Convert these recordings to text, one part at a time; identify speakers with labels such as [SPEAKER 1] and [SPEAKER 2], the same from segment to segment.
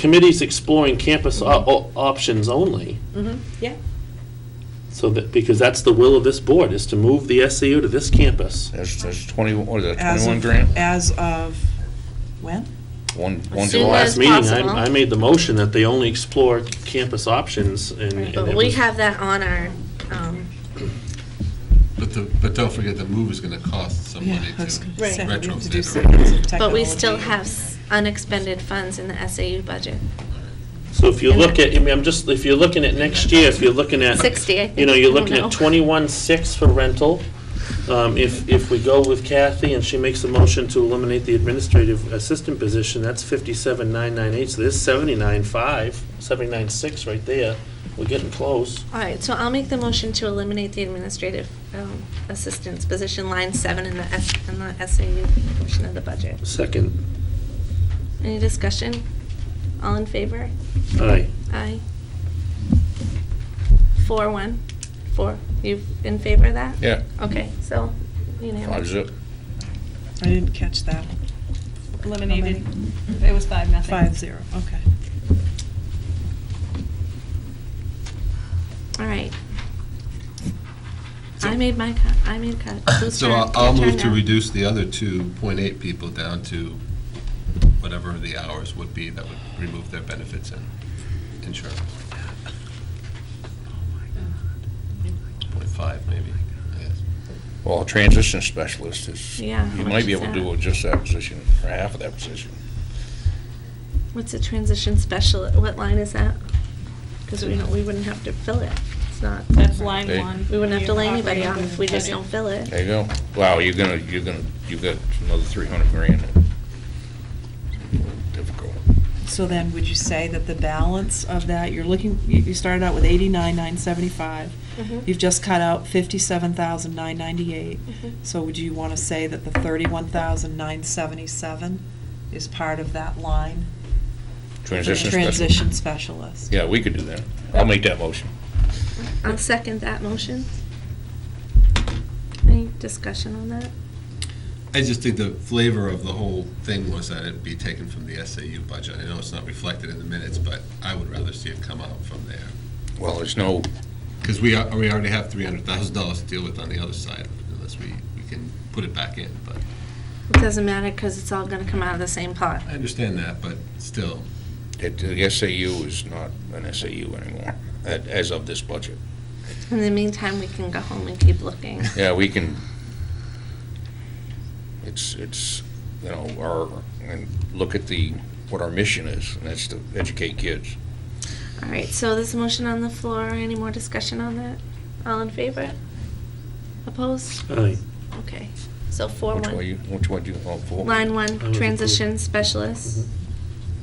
[SPEAKER 1] Committee's exploring campus o- o- options only,
[SPEAKER 2] Mm-hmm, yeah.
[SPEAKER 1] so that, because that's the will of this board, is to move the SAU to this campus.
[SPEAKER 3] There's, there's twenty, what is that,
[SPEAKER 2] As
[SPEAKER 3] twenty-one
[SPEAKER 2] of-
[SPEAKER 3] grand?
[SPEAKER 2] As of, when?
[SPEAKER 3] One, one
[SPEAKER 4] As soon
[SPEAKER 3] July.
[SPEAKER 1] Last
[SPEAKER 4] as-
[SPEAKER 1] meeting, I,
[SPEAKER 4] possible.
[SPEAKER 1] I made the motion that they only explore campus options and. and
[SPEAKER 4] But
[SPEAKER 1] it
[SPEAKER 4] we
[SPEAKER 1] was-
[SPEAKER 4] have that on our, um,
[SPEAKER 5] But the, but don't forget, the move is gonna cost some money
[SPEAKER 2] I was
[SPEAKER 5] too.
[SPEAKER 2] gonna
[SPEAKER 4] Right.
[SPEAKER 2] say, we have to do
[SPEAKER 5] Retrofit
[SPEAKER 2] some
[SPEAKER 5] or-
[SPEAKER 4] but we
[SPEAKER 2] technology.
[SPEAKER 4] still have s- unexpended funds in the SAU budget.
[SPEAKER 1] So if you
[SPEAKER 4] and
[SPEAKER 1] look
[SPEAKER 4] that-
[SPEAKER 1] at, I mean, I'm just, if you're looking at next year, if you're looking at.
[SPEAKER 4] 60, I think.
[SPEAKER 1] You know,
[SPEAKER 4] I
[SPEAKER 1] you're
[SPEAKER 4] don't
[SPEAKER 1] looking
[SPEAKER 4] know.
[SPEAKER 1] at twenty-one six for rental. Um, if, if we go with Kathy and she makes a motion to eliminate the administrative assistant position, that's fifty-seven nine nine eight, so there's seventy-nine five, seventy-nine six right there. We're getting close.
[SPEAKER 4] All right, so I'll make the motion to eliminate the administrative um, assistance position, line seven in the S, in the SAU portion of the budget.
[SPEAKER 1] Second,
[SPEAKER 4] Any discussion? All in favor?
[SPEAKER 1] aye.
[SPEAKER 4] Aye. Four, one, four. You in favor of that?
[SPEAKER 3] Yeah,
[SPEAKER 4] Okay, so unanimous.
[SPEAKER 3] five zip.
[SPEAKER 2] I didn't catch that.
[SPEAKER 6] eliminated. It was five, nothing.
[SPEAKER 2] Five zero, okay.
[SPEAKER 4] All right.
[SPEAKER 5] So-
[SPEAKER 4] I made my cut, I made cut. Whose
[SPEAKER 5] So
[SPEAKER 4] turn?
[SPEAKER 5] I'll, I'll
[SPEAKER 4] Your turn
[SPEAKER 5] move to
[SPEAKER 4] now.
[SPEAKER 5] reduce the other two point eight people down to whatever the hours would be that would remove their benefits and insurance. Point five, maybe, yes.
[SPEAKER 3] Well, a transition specialist is, you
[SPEAKER 4] Yeah, how
[SPEAKER 3] might
[SPEAKER 4] much
[SPEAKER 3] be
[SPEAKER 4] is
[SPEAKER 3] able to do
[SPEAKER 4] that?
[SPEAKER 3] with just that position, or half of that position.
[SPEAKER 4] What's a transition special, what line is that? Because we don't, we wouldn't have to fill it. It's not,
[SPEAKER 6] That's line
[SPEAKER 3] They-
[SPEAKER 6] one.
[SPEAKER 4] we wouldn't have to lay anybody off
[SPEAKER 6] on
[SPEAKER 4] if we just don't fill it.
[SPEAKER 3] There you go. Wow, you're gonna, you're gonna, you've got another three hundred grand. Difficult.
[SPEAKER 2] So then, would you say that the balance of that, you're looking, you you started out with eighty-nine, nine seventy-five.
[SPEAKER 4] Mhm.
[SPEAKER 2] You've just cut out fifty-seven thousand, nine ninety-eight.
[SPEAKER 4] Mhm.
[SPEAKER 2] So would you want to say that the thirty-one thousand, nine seventy-seven is part of that line?
[SPEAKER 3] Transition specialist.
[SPEAKER 2] Transition specialist.
[SPEAKER 3] Yeah, we could do that. I'll make that motion.
[SPEAKER 4] I'll second that motion. Any discussion on that?
[SPEAKER 5] I just think the flavor of the whole thing was that it'd be taken from the SAU budget. I know it's not reflected in the minutes, but I would rather see it come out from there.
[SPEAKER 3] Well, there's no,
[SPEAKER 5] Because we, are- we already have three hundred thousand dollars to deal with on the other side, unless we, we can put it back in, but,
[SPEAKER 4] It doesn't matter because it's all going to come out of the same pot.
[SPEAKER 5] I understand that, but still.
[SPEAKER 3] it- the SAU is not an SAU anymore, at- as of this budget.
[SPEAKER 4] In the meantime, we can go home and keep looking.
[SPEAKER 3] Yeah, we can, it's, it's, you know, our, and look at the, what our mission is, and that's to educate kids.
[SPEAKER 4] All right, so this motion on the floor, any more discussion on that? All in favor? Opposed?
[SPEAKER 1] Aye.
[SPEAKER 4] Okay, so Uh, four
[SPEAKER 3] Which way
[SPEAKER 4] one.
[SPEAKER 3] you, which way do you vote for?
[SPEAKER 4] Line
[SPEAKER 1] I
[SPEAKER 4] one,
[SPEAKER 1] was approved.
[SPEAKER 4] transition specialist,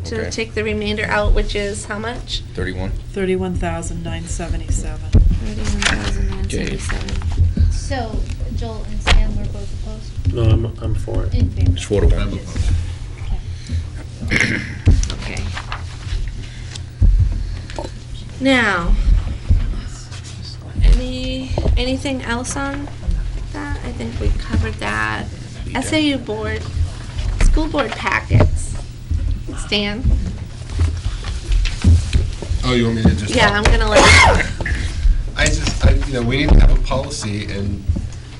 [SPEAKER 4] to
[SPEAKER 3] Okay.
[SPEAKER 4] take the remainder out, which is how much?
[SPEAKER 3] Thirty-one?
[SPEAKER 2] Thirty-one thousand, nine seventy-seven.
[SPEAKER 4] Thirty-one thousand nine seventy-seven.
[SPEAKER 7] So Joel and Sam were both opposed,
[SPEAKER 1] Mm-hmm. No, I'm, I'm for it.
[SPEAKER 7] in favor?
[SPEAKER 3] It's four to
[SPEAKER 5] I'm
[SPEAKER 3] one.
[SPEAKER 5] opposed.
[SPEAKER 7] Okay.
[SPEAKER 4] Okay. Now, any, anything else on that? I think we covered that. SAU board, school board packets. Stan?
[SPEAKER 5] Oh, you want me to just?
[SPEAKER 4] Yeah, I'm gonna let,
[SPEAKER 5] I just, I, you know, we need to have a policy, and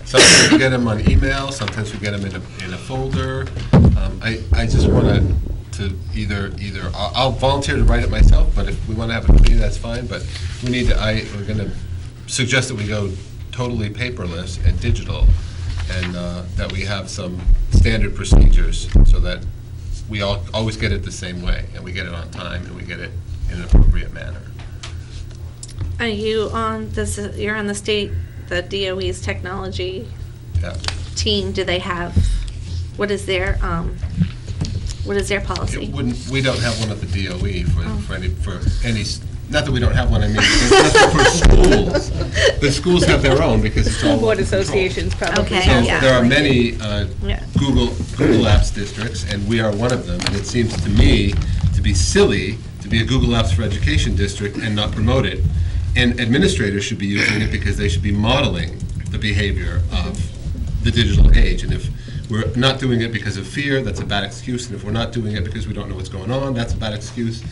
[SPEAKER 5] sometimes we get them on email, sometimes we get them in a, in a folder. Um, I, I just want to, to either, either, I'll I'll volunteer to write it myself, but if we want to have a committee, that's fine, but we need to, I, we're going to suggest that we go totally paperless and digital, and uh, that we have some standard procedures, so that we all, always get it the same way, and we get it on time, and we get it in an appropriate manner.
[SPEAKER 4] are you on, this, is- you're on the state, the DOE's technology
[SPEAKER 5] Yeah.
[SPEAKER 4] team, do they have, what is their, um, what is their
[SPEAKER 5] It
[SPEAKER 4] policy?
[SPEAKER 5] wouldn't, we don't have one at the DOE
[SPEAKER 4] Oh.
[SPEAKER 5] for, for any, for any, s- not that we don't have one, I mean, for schools. The schools have their own because it's all.
[SPEAKER 6] School board
[SPEAKER 5] controlled.
[SPEAKER 6] associations probably.
[SPEAKER 4] Okay,
[SPEAKER 5] So
[SPEAKER 4] yeah.
[SPEAKER 5] there are many uh,
[SPEAKER 4] Yeah.
[SPEAKER 5] Google, Google Apps districts, and we are one of them. And it seems to me to be silly to be a Google Apps for Education district and not promote it. And administrators should be using it because they should be modeling the behavior of the digital age. And if we're not doing it because of fear, that's a bad excuse, and if we're not doing it because we don't know what's going on, that's a bad excuse.